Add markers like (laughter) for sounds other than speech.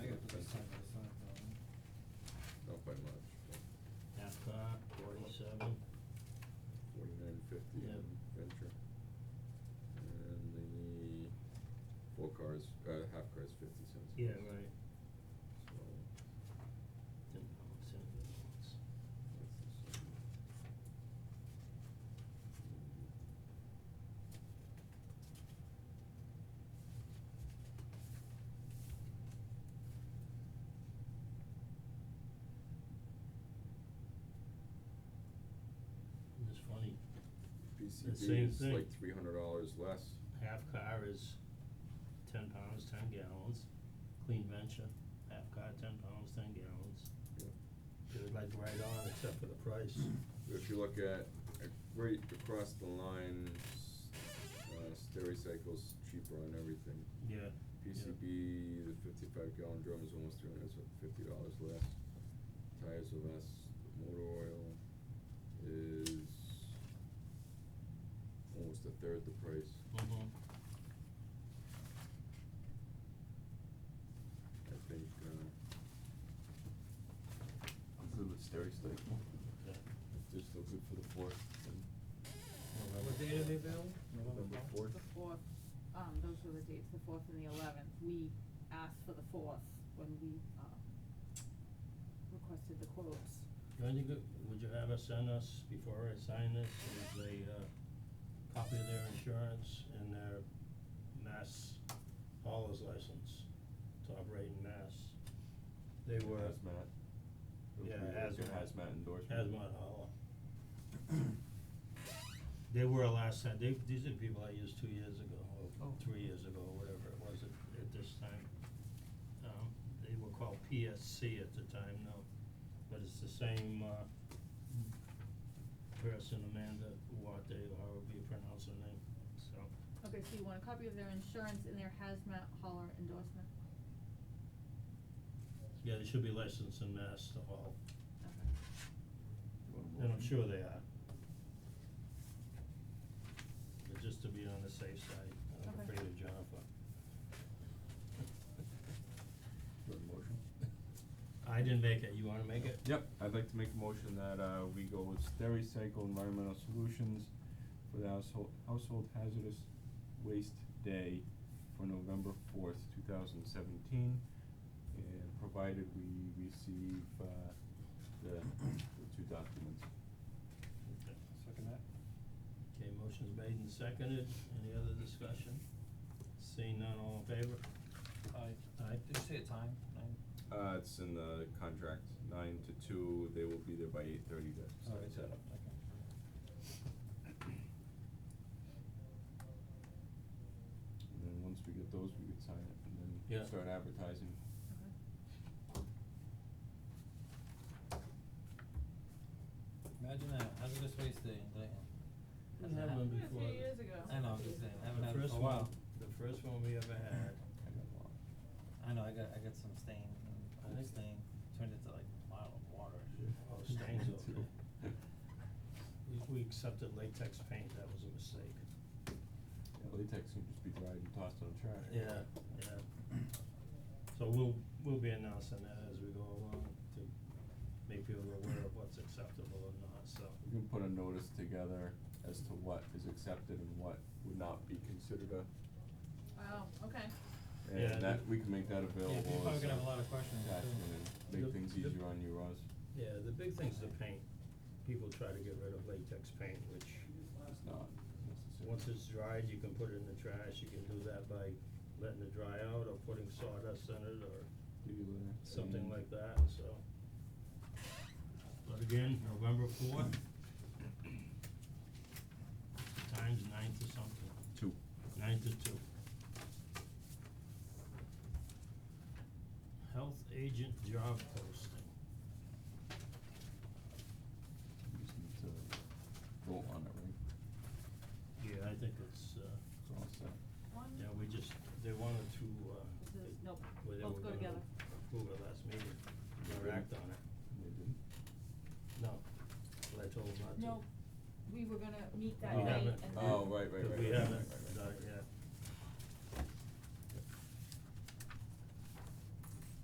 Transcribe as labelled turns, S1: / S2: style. S1: uh,
S2: The
S1: CCD
S2: same
S1: is
S2: thing.
S1: like three hundred dollars less.
S2: half car is ten pounds, ten gallons, clean venture, half car, ten pounds, ten gallons.
S1: Yeah.
S2: They're like right on except for the price.
S1: If you look at, uh, right across the line, s- uh, Stericycle's cheaper on everything.
S2: Yeah,
S1: PCB, the fifty-five gallon drum is almost three hundred fifty dollars less. Tires are less, motor oil is almost a third the price.
S2: mhm,
S1: I think, uh,
S3: I'm good with Stericycle.
S2: yeah.
S3: If they're still good for the fourth, then
S4: What date are they available?
S3: November fourth.
S5: The fourth, um, those were the dates, the fourth and the eleventh, we asked for the fourth when we, um, requested the quotes.
S2: You want to go, would you have us send us, before I sign this, is a uh copy of their insurance and their mass haulers license to operate in mass. They were.
S3: Hazmat. It was
S2: Yeah,
S3: weird, like a
S2: hazmat.
S3: Hazmat endorsement.
S2: Hazmat hauler. They were last time, they, these are people I used two years ago, or
S4: Oh.
S2: three years ago, or whatever it was at, at this time. Um, they were called PSC at the time, no, but it's the same, uh, person, Amanda Duarte, or however you pronounce her name, so.
S5: Okay, so you want a copy of their insurance and their hazmat hauler endorsement?
S2: Yeah, they should be licensed in Mass to haul,
S5: Okay.
S3: You want a
S2: and I'm
S3: motion?
S2: sure they are. But just to be on the safe side, I'm
S5: Okay.
S2: afraid of Jennifer.
S3: You want a motion?
S2: I didn't make it, you wanna make it?
S3: Yep, I'd like to make a motion that uh we go with Stericycle Environmental Solutions for the household household hazardous waste day for November fourth, two thousand seventeen. And provided we receive uh the the two documents.
S2: Okay.
S3: Second that.
S2: Okay, motion's made and seconded, any other discussion? Seeing none, all in favor?
S4: Aye.
S2: Aye.
S4: Did you say a time? Nine?
S3: Uh, it's in the contract, nine to two, they will be there by eight thirty to
S4: Oh,
S3: start
S4: it's
S3: set
S4: up,
S3: up.
S4: okay.
S3: And then once we get those, we could sign it and
S2: Yeah.
S3: then start advertising.
S5: Okay.
S4: Imagine that, hazardous waste day in Dayton.
S2: We
S4: Hasn't
S2: had
S4: happened.
S2: one
S5: happened a few
S2: before.
S5: years ago.
S4: I know, I'm just saying, I haven't
S2: The
S4: had it
S2: first
S4: for a
S2: one-
S4: while.
S2: The first one we ever had,
S3: I got a lot.
S4: I know, I got, I got some stain,
S2: I
S4: old
S2: think-
S4: stain, turned into like a bottle of water.
S2: oh,
S3: (laughs)
S2: stains
S3: Me
S2: okay.
S3: too.
S2: We, we accepted latex paint, that was a mistake.
S3: Yeah, latex can just be dried and tossed in the trash.
S2: Yeah, yeah. So we'll, we'll be announcing that as we go along to make people aware of what's acceptable or not, so.
S3: We can put a notice together as to what is accepted and what would not be considered a,
S5: Wow, Oh, okay.
S2: Yeah,
S3: and that, we can make that
S4: Yeah,
S3: available
S4: you're probably
S3: as
S4: gonna
S3: a
S4: have a lot of questions too.
S3: attachment and
S2: Yep,
S3: make things
S2: yep.
S3: easier on you, Roz.
S2: Yeah, the big thing's the paint, people try to get rid of latex paint, which
S3: It's not necessary.
S2: Once it's dried, you can put it in the trash, you can do that by letting it dry out or putting sawdust in it or
S3: Do you, Lynn?
S2: something
S3: And-
S2: like that, so. But again, November fourth. Times nine to something,
S3: Two.
S2: nine to two. Health agent job posting,
S3: We just need to vote on it, right?
S2: yeah, I think it's uh,
S3: It's all set.
S5: One,
S2: yeah, we just, they wanted to uh.
S5: Is this-
S2: they-
S5: nope,
S2: well, they
S5: both
S2: were
S5: go
S2: gonna
S5: together.
S2: Move it last meeting, or
S3: Yeah.
S2: act on it.
S3: They didn't?
S2: No, but I told him not to.
S5: no, we were gonna meet that
S2: We
S5: night
S2: haven't.
S5: and then.
S3: Oh, right, right, right,
S2: We
S3: right, right,
S2: haven't,
S3: right, right.
S2: done it yet.